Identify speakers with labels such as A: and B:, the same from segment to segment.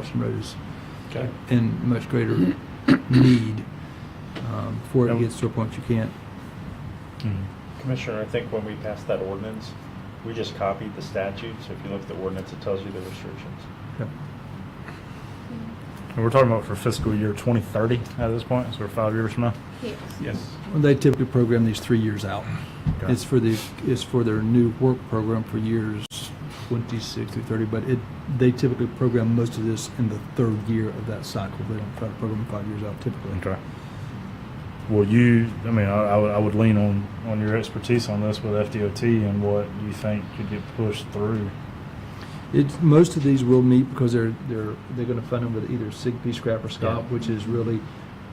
A: Washington Road is
B: Okay.
A: in much greater need um, before it
B: And-
A: gets to a point you can't.
B: Mm.
C: Commissioner, I think when we passed that ordinance, we just copied the statute, so if you look at the ordinance, it tells you the restrictions.
A: okay.
B: And we're talking about for fiscal year 2030 at this point, so we're five years from now.
D: Yes.
B: Yes.
A: Well, They typically program these three years out.
B: Okay.
A: It's for the, it's for their new work program for years 26 through 30, but it, they typically program most of this in the third year of that cycle. They don't try to program five years out typically.
B: Okay. Well, you, I mean, I, I, would, I would lean on, on your expertise on this with FDOT and what you think could get pushed through.
A: It's, most of these will meet because they're, they're, they're gonna fund them with either SIGP, scrap, or
B: Yeah.
A: SCOP, which is really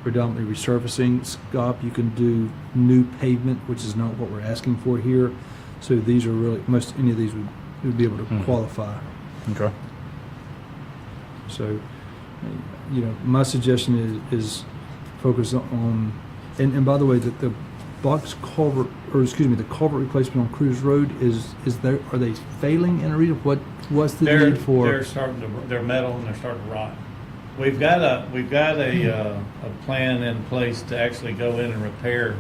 A: predominantly resurfacing. SCOP, you can do new pavement, which is not what we're asking for here. So these are really, most, any of these would, would be able to
E: Hmm.
B: Mhm.
A: qualify.
B: Okay.
A: So, you know, my suggestion is, is focus on, and, and by the way, that the box culvert, or excuse me, the culvert replacement on Cruise Road is, is there, are they failing in Arena? What, what's the
E: They're,
A: need for?
E: they're starting to, they're metal and they're starting to rot. We've got a, we've got a, uh, a plan in place to actually go in and repair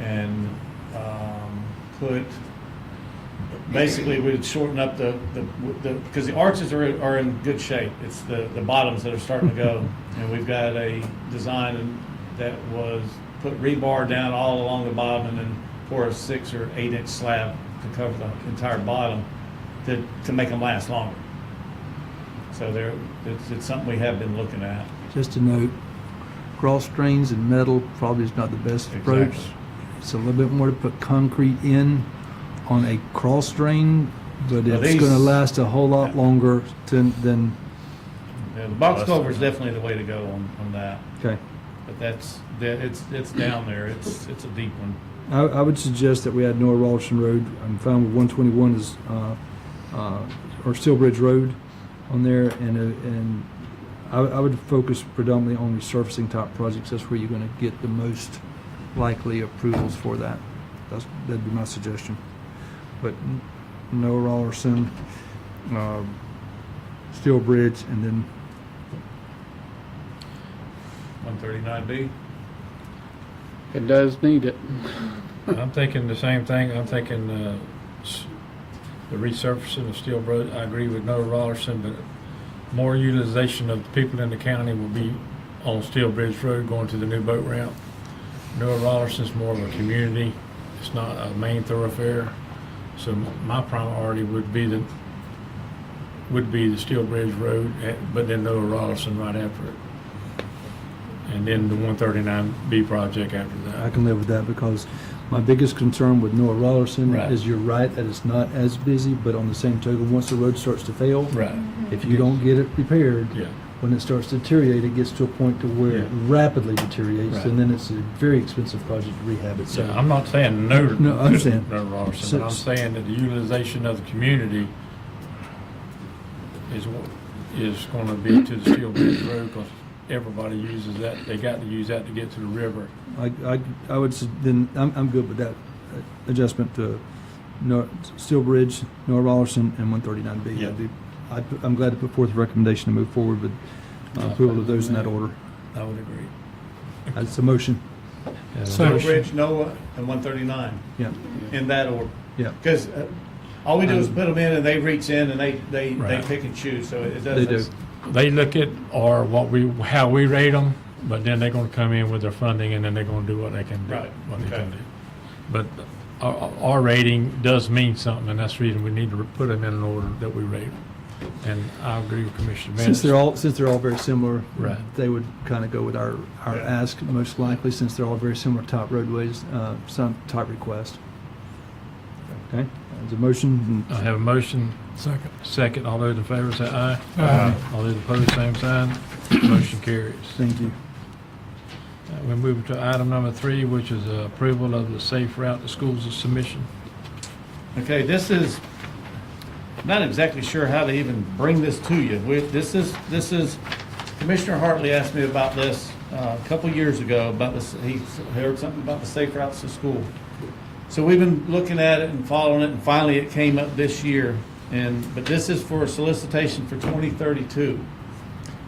E: and, um, put, basically we'd shorten up the, the, because the arches are, are in good shape. It's the, the bottoms that are starting to go. And we've got a design that was, put rebar down all along the bottom and then pour a six or eight inch slab to cover the entire bottom to, to make them last longer. So there, it's, it's something we have been looking at.
A: Just a note, cross drains and metal probably is not the best approach.
E: Exactly.
A: It's a little bit more to put concrete in on a cross drain, but
E: Now
A: it's gonna
E: these-
A: last a whole lot longer than, than,
E: Yeah, the box
B: Last
E: culvert's
B: time.
E: definitely the way to go on, on that,
A: okay.
E: but that's, that, it's, it's down there, it's, it's a deep one.
A: I, I would suggest that we add North Rolston Road. I'm fine with 121 is, uh, uh, or Steel Bridge Road on there. And, uh, and I, I would focus predominantly on resurfacing type projects. That's where you're going to get the most likely approvals for that. That's, that'd be my suggestion. But N- North Rolston, um, Steel Bridge, and then,
E: One thirty-nine B?
F: It does need it.
G: I'm thinking the same thing. I'm thinking uh, s- the resurfacing of Steel Broad. I agree with Noah Rollerson, but more utilization of the people in the county will be on Steel Bridge Road going to the new boat ramp. Noah Rollerson's more of a community. It's not a main thoroughfare. So m- my priority would be the, would be the Steel Bridge Road, eh, but then Noah Rollerson right after it. And then the 139B project after that.
A: I can live with that because my biggest concern with North Rollerson
G: Right.
A: is you're right that it's not as busy, but on the same token, once the road starts to fail,
G: Right.
A: if you don't get it repaired,
G: Yeah.
A: when it starts to deteriorate, it gets to a point to where it
G: Yeah.
A: rapidly deteriorates,
G: Right.
A: and then it's a very expensive project to rehab it.
G: So
A: So
G: I'm not saying no.
A: No, I understand.
G: No, Robertson, but I'm
A: So-
G: saying that the utilization of the community is, what- is going to be to the Steel Bridge Road because everybody uses that. They got to use that to get to the river.
A: I, I, I would, s- then, I'm, I'm good with that uh, adjustment to Nor, Steel Bridge, Nor Rollerson, and one thirty-nine B.
G: Yeah.
A: I, put- I'm glad to put forth a recommendation to move forward with uh, approval of those in that order.
G: I would agree.
A: That's a motion,
E: Stone Bridge, Noah, and one thirty-nine,
A: yeah,
E: in that order.
A: yeah.
E: Because all we do is put them in and they reach in and they, they, they
G: Right.
E: pick and choose, so it
A: They
E: doesn't.
A: do.
G: They look at or what we, how we rate them, but then they're going to come in with their funding and then they're going to do what they can do.
E: Right,
G: What they
E: okay.
G: can do. But our, our rating does mean something and that's the reason we need to put them in an order that we rate. 'em. And I agree with Commissioner Bennett.
A: Since they're all, since they're all very similar.
G: Right.
A: They would kind of go with our, our
E: Yeah.
A: ask, most likely, since they're all very similar type roadways, uh, some type request. Okay, there's a motion,
G: I have a motion. Second. Second, all those in favor say aye.
B: Aye.
G: All those opposed, same sign. Motion carries. Uh,
A: thank you.
G: We move to item number three, which is uh, approval of the safe route to schools submission.
E: Okay, this is, not exactly sure how to even bring this to you. We- This is, this is, Commissioner Hartley asked me about this uh, a couple years ago, about this, he heard something about the safe routes to school. So we've been looking at it and following it, and finally it came up this year. And, but this is for a solicitation for 2032.